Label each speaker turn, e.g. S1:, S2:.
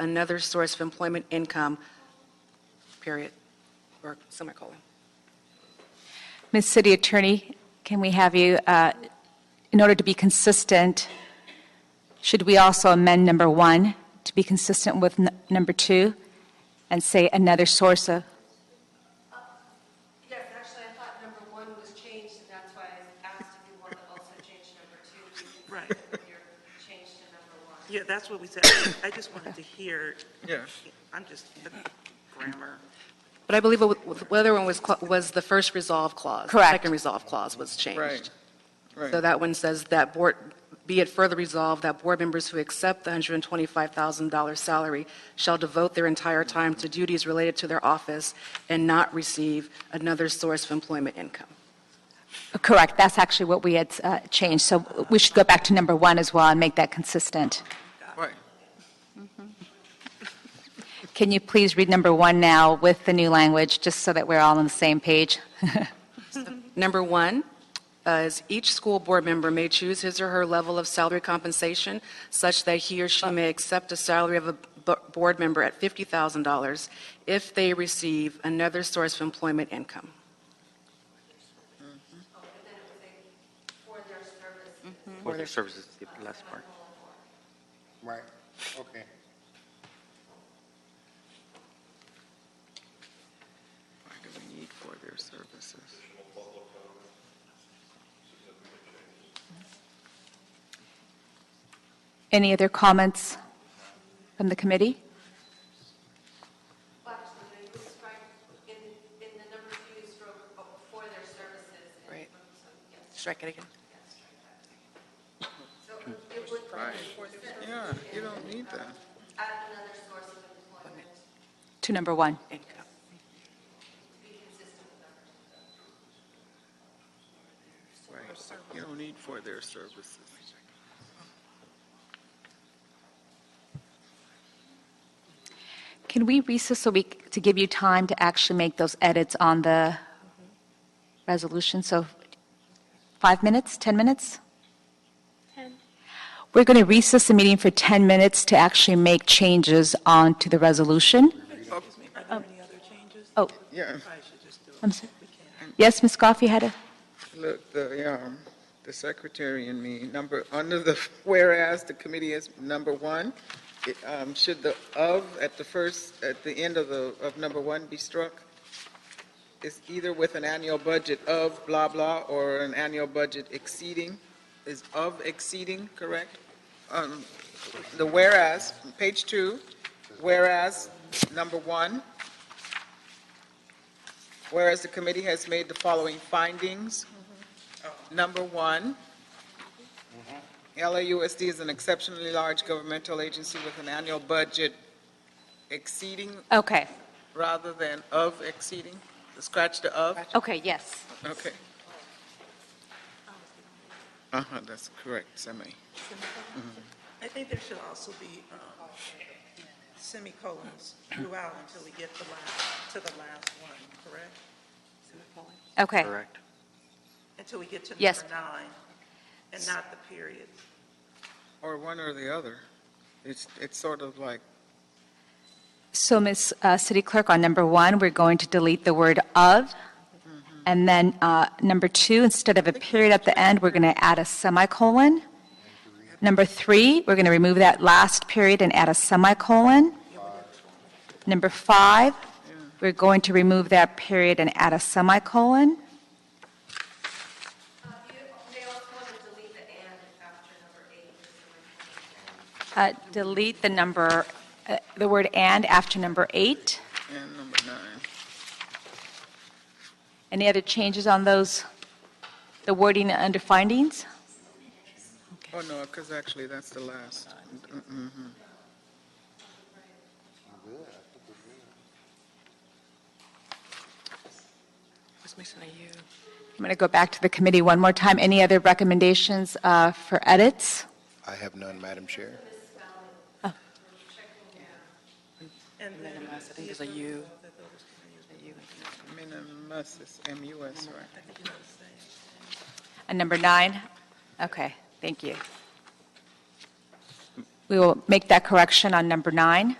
S1: another source of employment income, period, or semicolon.
S2: Ms. City Attorney, can we have you, uh, in order to be consistent, should we also amend number one to be consistent with n- number two and say another source of,
S3: Yes, actually, I thought number one was changed, and that's why I asked if you want to also change number two.
S4: Right.
S3: Your change to number one.
S4: Yeah, that's what we said. I just wanted to hear,
S5: Yeah.
S4: I'm just, grammar.
S1: But I believe what- the other one was, cla- was the first resolve clause.
S2: Correct.
S1: Second resolve clause was changed.
S5: Right, right.
S1: So that one says that board, be it further resolved that board members who accept the $125,000 salary shall devote their entire time to duties related to their office and not receive another source of employment income.
S2: correct, that's actually what we had uh, changed, so we should go back to number one as well and make that consistent.
S5: Right.
S2: Can you please read number one now with the new language, just so that we're all on the same page?
S1: Number one uh, is each school board member may choose his or her level of salary compensation such that he or she may accept a salary of a bo- board member at $50,000 if they receive another source of employment income.
S3: And then it was a, for their service.
S6: for their services, the last part.
S7: Right, okay.
S5: Why do we need for their services?
S2: Any other comments from the committee?
S3: Well, actually, no, you would strike, in, in the number two, you stroke oh, for their services. and-
S1: Right.
S3: so, yes,
S1: Strike it again.
S3: So it would be for services
S5: Yeah, you don't need that.
S3: at another source of employment to
S2: To number one.
S1: Income.
S3: be consistent with number two.
S5: Right. You don't need for their services.
S2: Can we recess a week to give you time to actually make those edits on the resolution? So five minutes, 10 minutes? 10. We're going to recess the meeting for 10 minutes to actually make changes onto the resolution.
S4: Excuse me, are there any other changes?
S2: Oh,
S5: Yeah,
S4: I should just do it.
S2: I'm sorry.
S4: We can't.
S2: Yes, Ms. Goff, you had a,
S5: look, the, um, the secretary and me, number, under the, whereas the committee is number one, it, um, should the of at the first, at the end of the, of number one be struck? It's either with an annual budget of blah blah or an annual budget exceeding. Is of exceeding correct? Um, the whereas, page two, whereas, number one, Whereas the committee has made the following findings. Number one, LAUSD is an exceptionally large governmental agency with an annual budget exceeding
S2: okay,
S5: rather than of exceeding. Scratch the of?
S2: okay, yes.
S5: Okay. Uh-huh, that's correct, semi.
S4: I think there should also be um, semicolons throughout until we get the last, to the last one, correct?
S2: Okay,
S6: Correct.
S4: Until we get to
S2: Yes.
S4: number nine, and not the periods.
S5: Or one or the other. It's, it's sort of like,
S2: so Ms. uh, City Clerk, on number one, we're going to delete the word "of," Mm-hmm. and then uh, number two, instead of a period at the end, we're going to add a semicolon. Number three, we're going to remove that last period and add a semicolon. Number five, we're going to remove that period and add a semicolon.
S3: Uh, you may also want to delete the and after number eight.
S2: Uh, Delete the number, uh, the word "and" after number eight.
S5: and number nine.
S2: Any other changes on those, the wording under findings?
S5: Oh, no, because actually, that's the last. Mhm.
S1: What's missing are you?
S2: I'm going to go back to the committee one more time. Any other recommendations uh, for edits?
S7: I have none, Madam Chair.
S4: And then
S1: I think it's a you.
S5: Minimus is M-U-S, right?
S2: And number nine? Okay, thank you. We will make that correction on number nine.